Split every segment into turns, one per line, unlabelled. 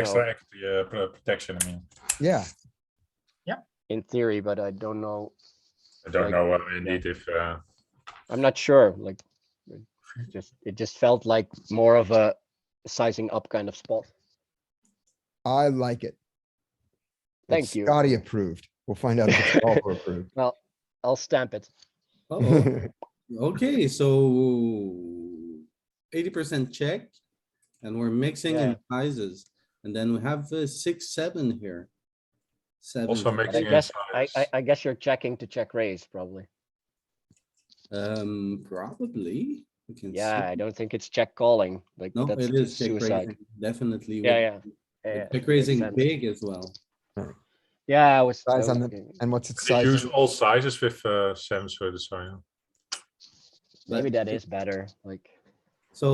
Extra
So,
equity, uh, pro- protection, I mean,
Yeah,
in theory, but I don't know.
I don't
Like,
know uh, indeed if, uh,
I'm not sure, like, it just, it just felt like more of a sizing up kind of spot.
I like it.
Thank
It's
you.
Scotty approved. We'll find out if it's all approved.
I'll stamp it.
Uh-oh. Okay, so eighty percent check. And we're mixing in sizes. And then we have uh, six, seven here. Seven.
also
But I
mixing in
guess, I, I,
size.
I guess you're checking to check raise probably.
Um, probably. we can see.
Yeah, I don't think it's check calling, like
No,
that's
it is check
suicide.
raising, definitely.
Yeah,
would-
yeah, yeah. yeah,
but Check
makes
raising
sense.
big as well.
Yeah, I was. I
Size
was
on the-
thinking,
And what's its
They
size?
use all sizes with, uh, sensor design.
Maybe
but-
that is better, like,
So,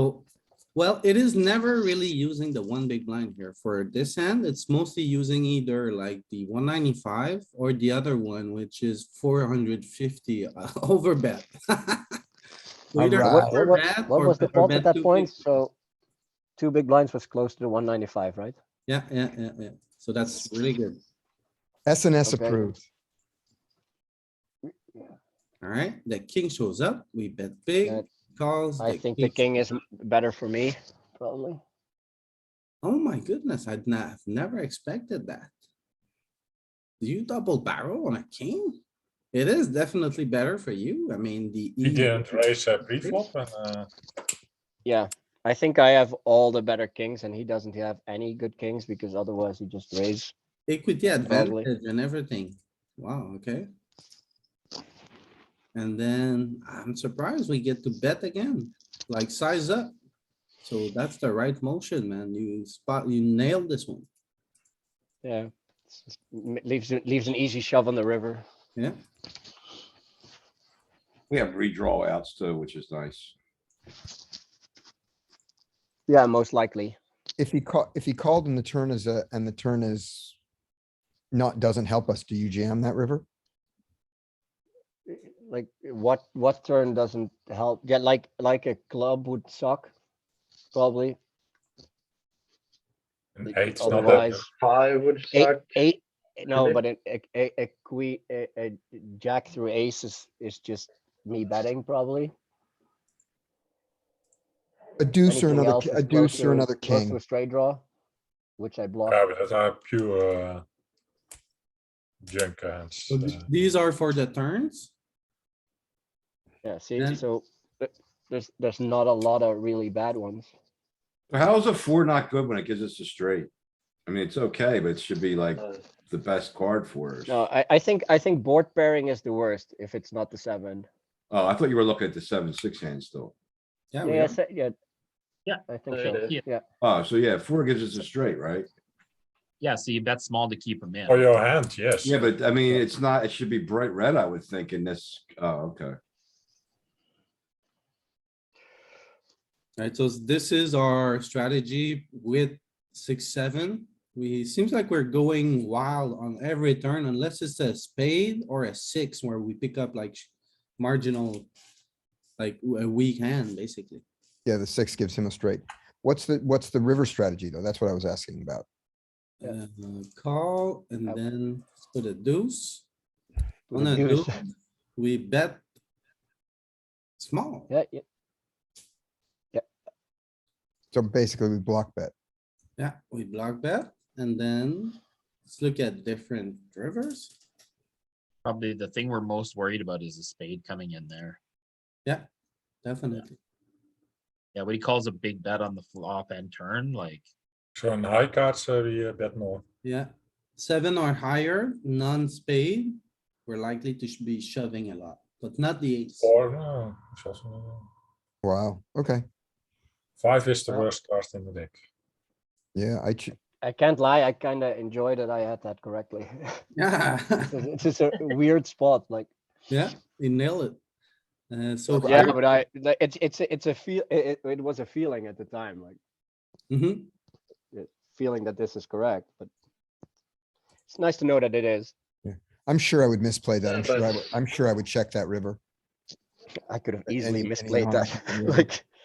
well, it is never really using the one big blind here. For this hand, it's mostly using either like the one ninety-five or the other one, which is four hundred fifty over bet. Either
Alright.
what, what,
over
was-
bet
what
or
was the fault
bet
at that
250.
point? So two big blinds was close to the one ninety-five, right?
Yeah, yeah, yeah, yeah. So that's really good.
S and S
Okay.
approved.
Alright, the king shows up, we bet big,
That-
calls.
I think the king is m- better for me, probably.
Oh my goodness, I'd not, have never expected that. Do you double barrel on a king? It is definitely better for you. I mean, the.
He
E-
didn't raise uh, pre-flop and, uh,
Yeah, I think I have all the better kings and he doesn't have any good kings because otherwise he just raised.
Equity
Badly.
advantage and everything. Wow, okay. And then I'm surprised we get to bet again, like size up. So that's the right motion, man. You spot, you nailed this one.
Yeah. it's just m- Leaves, a- leaves an easy shove on the river.
Yeah,
We have redraw outs too, which is nice.
Yeah, most likely.
If he called, if he called and the turn is a, and the turn is not, doesn't help us, do you jam that river?
Like what, what turn doesn't help? Yeah, like, like a club would suck. Probably.
an
Like,
eight's not that.
Otherwise,
Five would
eight,
suck.
eight, no,
Really?
but a, a, a, a que, a, a jack through ace is, is just me betting probably.
A deuce or
Anything
another,
else
ki-
is
a
close
deuce
to-
or another
close to
king.
a Straight draw, which I block.
Yeah, but that's are pure, uh, junk hands.
so th-
uh,
these are for the turns.
Yeah, see,
Then-
so th- there's, there's not a lot of really bad ones.
But how is a four not good when it gives us a straight? I mean, it's okay, but it should be like
Uh,
the best card for us.
No, I, I think, I think board pairing is the worst if it's not the seven.
Oh, I thought you were looking at the seven, six hand still.
Yeah, we
Yeah,
are.
se- yeah.
Yeah,
I think
there
so,
it
is.
yeah.
Oh, so yeah, four gives us a straight, right?
Yeah, so you bet small to keep him in.
For your hand, yes.
Yeah, but I mean, it's not, it should be bright red, I would think in this, oh, okay.
Alright, so this is our strategy with six, seven. We, seems like we're going wild on every turn unless it's a spade or a six where we pick up like sh- marginal. Like w- a weak hand, basically.
Yeah, the six gives him a straight. What's the, what's the river strategy though? That's what I was asking about.
Uh, call and
Yep.
then put a deuce.
with
On
a
a
deuce.
deuce, we bet. Small,
Yeah, yeah,
So basically we block bet.
yeah, we block bet and then let's look at different rivers.
Probably the thing we're most worried about is a spade coming in there.
Definitely.
Yeah, when he calls a big bet on the flop and turn, like,
So on high cards, uh, we uh, bet more.
Yeah, seven or higher, non-spade, we're likely to sh- be shoving a lot, but not the eights.
Or, no, it's also, no.
Wow, okay.
five is the
Yeah.
worst card in the deck.
Yeah, I, ch-
I can't lie, I kinda enjoy that I had that correctly.
Yeah,
It's just a weird spot, like,
yeah, we nail it. Uh, so.
yeah, but I, like, it's, it's, a- it's a feel, it, it- it was a feeling at the time, like,
Mhm.
uh, feeling that this is correct, but it's nice to know that it is.
I'm sure I would misplay that.
Yeah,
I'm sure I
but-
would, I'm sure I would check that river.
I could have
any-
easily
any
misplayed
harm,
that,
yeah.
like,